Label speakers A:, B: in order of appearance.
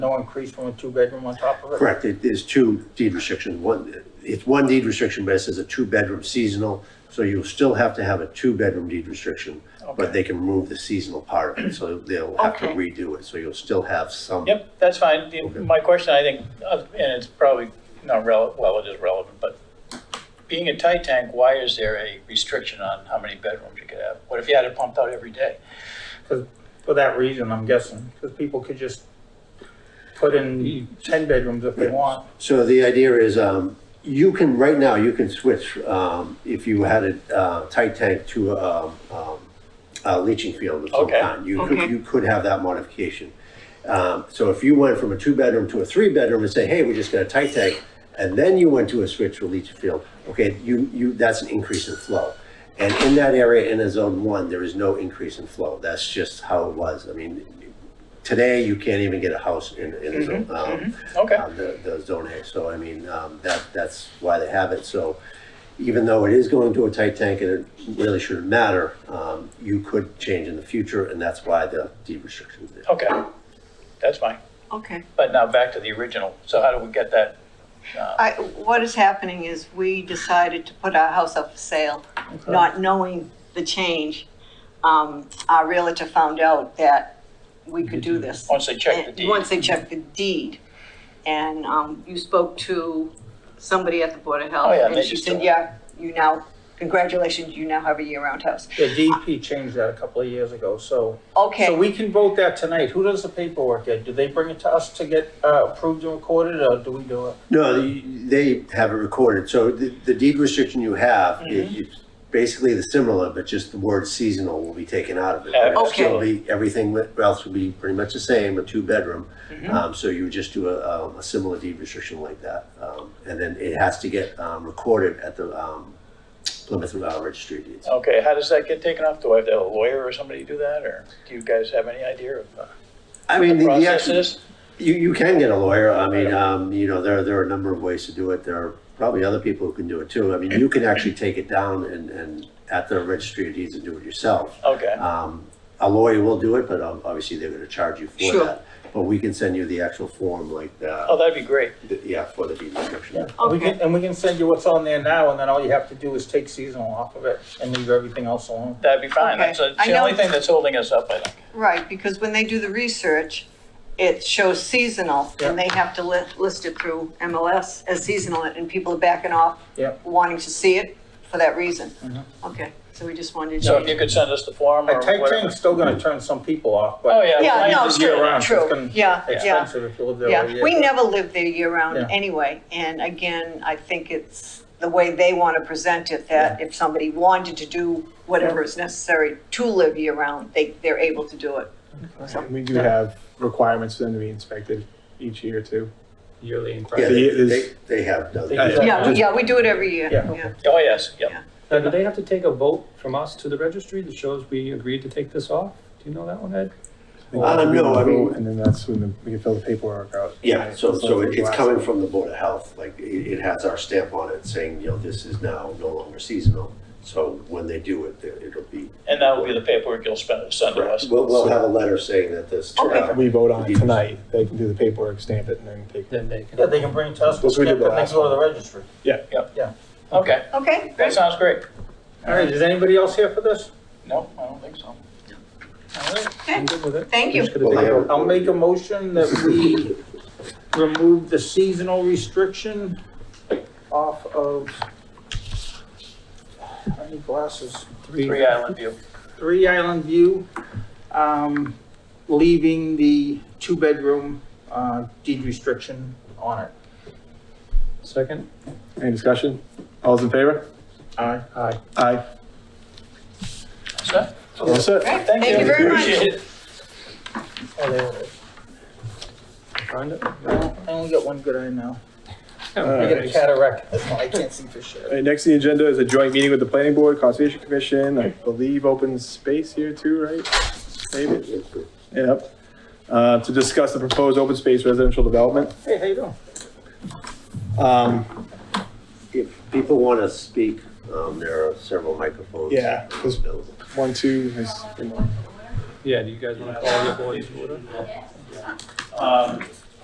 A: No increase from a two-bedroom on top of it?
B: Correct, it is two deed restrictions, one, it's one deed restriction, but it says a two-bedroom seasonal, so you'll still have to have a two-bedroom deed restriction, but they can remove the seasonal part of it, so they'll have to
C: Okay.
B: redo it, so you'll still have some.
A: Yep, that's fine. The- My question, I think, uh, and it's probably not relevant, well, it is relevant, but being a tight tank, why is there a restriction on how many bedrooms you could have? What if you had it pumped out every day? Because, for that reason, I'm guessing, because people could just put in ten bedrooms if they want.
B: So the idea is, um, you can, right now, you can switch, um, if you had a, uh, tight tank to, um, um, a leaching field of some
A: Okay.
B: kind. You
C: Okay.
B: could, you could have that modification. Um, so if you went from a two-bedroom to a three-bedroom and say, hey, we just got a tight tank, and then you went to a switch to a leaching field, okay, you, you, that's an increase in flow. And in that area, in a zone one, there is no increase in flow. That's just how it was. I mean, today, you can't even get a house in, in a zone, um,
A: Okay,
B: uh, the, the zone A. So I mean, um, that, that's why they have it. So even though it is going to a tight tank and it really shouldn't matter, um, you could change in the future and that's why the deed restrictions there.
A: okay, that's fine.
C: Okay.
A: But now back to the original. So how do we get that?
C: I, what is happening is we decided to put our house up for sale, not knowing the change. Um, our realtor found out that we could do this.
A: Once they check the
C: And
A: deed?
C: Once they checked the deed. And, um, you spoke to somebody at the Board of Health.
A: Oh, yeah, they
C: And she
A: just
C: said,
A: don't-
C: yeah, you now, congratulations, you now have a year-round house.
D: The DP changed that a couple of years ago, so. So
C: Okay,
D: we can vote that tonight. Who does the paperwork get? Do they bring it to us to get uh, approved and recorded, or do we do it?
B: No, the- they have it recorded. So the, the deed restriction you have, it- it's basically the similar, but just the word seasonal will be taken out of it.
A: Yeah,
B: But it'll still
A: okay.
B: be- Everything else will be pretty much the same, a two-bedroom. Um, so you would just do a, um, a similar deed restriction like that. Um, and then it has to get, um, recorded at the, um, Plymouth uh, Registry of Deeds.
A: Okay, how does that get taken off? Do I have to have a lawyer or somebody do that, or do you guys have any idea of uh,
B: I mean, the, the actual-
A: processes?
B: You, you can get a lawyer. I mean, um, you know, there, there are a number of ways to do it. There are probably other people who can do it too. I mean, you can actually take it down and, and at the registry of deeds and do it yourself.
A: Okay,
C: Uh,
B: Um, a lawyer will do it, but um, obviously they're gonna charge you for
C: Sure.
B: that. But we can send you the actual form like the,
A: oh, that'd be great.
B: the- yeah, for the deed restriction.
D: We
C: okay,
D: can- And we can send you what's on there now, and then all you have to do is take seasonal off of it and leave everything else alone.
A: That'd be fine.
C: Okay.
A: That's it's
C: I
A: the only
C: know-
A: thing that's holding us up, I think.
C: right, because when they do the research, it shows seasonal, and they have to li- list it through MLS as seasonal, and people are backing off.
D: Yeah.
C: Wanting to see it for that reason.
D: Mm-hmm.
C: Okay, so we just wanted to
A: So
C: change.
A: if you could send us the form
D: A
A: or
D: tight
A: whatever.
D: tank's still gonna turn some people off,
A: Oh,
D: but
A: yeah.
C: Yeah,
A: fine.
C: no,
D: it's year
C: true,
D: round, so it's
C: true,
D: gonna
C: yeah, yeah,
D: expensive if you live there all
C: yeah.
D: year.
C: We never lived there year-round
D: Yeah.
C: anyway, and again, I think it's the way they want to present it, that if somebody wanted to do whatever is necessary to live year-round, they, they're able to do it.
E: And We do have requirements for them to be inspected each year too.
D: Yearly in
B: Yeah,
D: practice.
B: they,
E: it is-
B: they- they have done
D: Yeah.
B: that.
C: Yeah,
E: Just-
C: yeah, we do it every year,
D: Yeah.
C: yeah.
A: Oh, yes, yep.
F: Now, do they have to take a vote from us to the registry that shows we agreed to take this off? Do you know that one, Ed?
B: Uh, no, I mean-
E: And then that's when the- we can fill the paperwork out.
B: Yeah, so,
E: That's
B: so
E: what
B: it-
E: we
B: it's
E: asked.
B: coming from the Board of Health, like, it, it has our stamp on it saying, you know, this is now no longer seasonal. So when they do it, there- it'll be.
A: And that will be the paperwork you'll spend, send to us.
B: Correct. We'll, we'll have a letter saying that this. uh,
E: We vote on it tonight. They can do the paperwork, stamp it, and then take it.
F: Then they can.
D: Yeah, they can bring it to us, we'll
E: That's what we
D: stamp
E: did
D: it, and
E: last
D: go to the registry.
A: Okay,
C: Okay,
A: that sounds great.
D: All right, is anybody else here for this?
A: No, I don't think so. All right.
F: I'm good with it.
C: thank you.
F: Just gonna
B: Well,
F: take
B: they
F: a vote.
B: have-
D: I'll make a motion that we remove the seasonal restriction off of, I need glasses,
A: Three Island View.
D: Three Island View, um, leaving the two-bedroom, uh, deed restriction on it.
F: Second?
E: Any discussion? All's in favor?
D: Aye.
F: Aye.
E: Aye.
A: So,
E: All set?
C: Great, Thank you very much.
A: Appreciate it.
D: Oh, there it is.
F: Find it?
D: Well, I only got one good eye now.
E: All
D: I got a
E: right.
D: cataract, that's why I can't see for
E: All
D: shit.
E: right, Next, on the agenda is a joint meeting with the planning board, conservation commission, I believe open space here too, right? Maybe, yep. Uh, to discuss the proposed open space residential development.
D: Hey, how you doing?
E: Um,
B: If people want to speak, um, there are several microphones.
E: Yeah.
B: available.
E: one, two, is,
F: Yeah, do you guys want to call the board to order?
A: Um,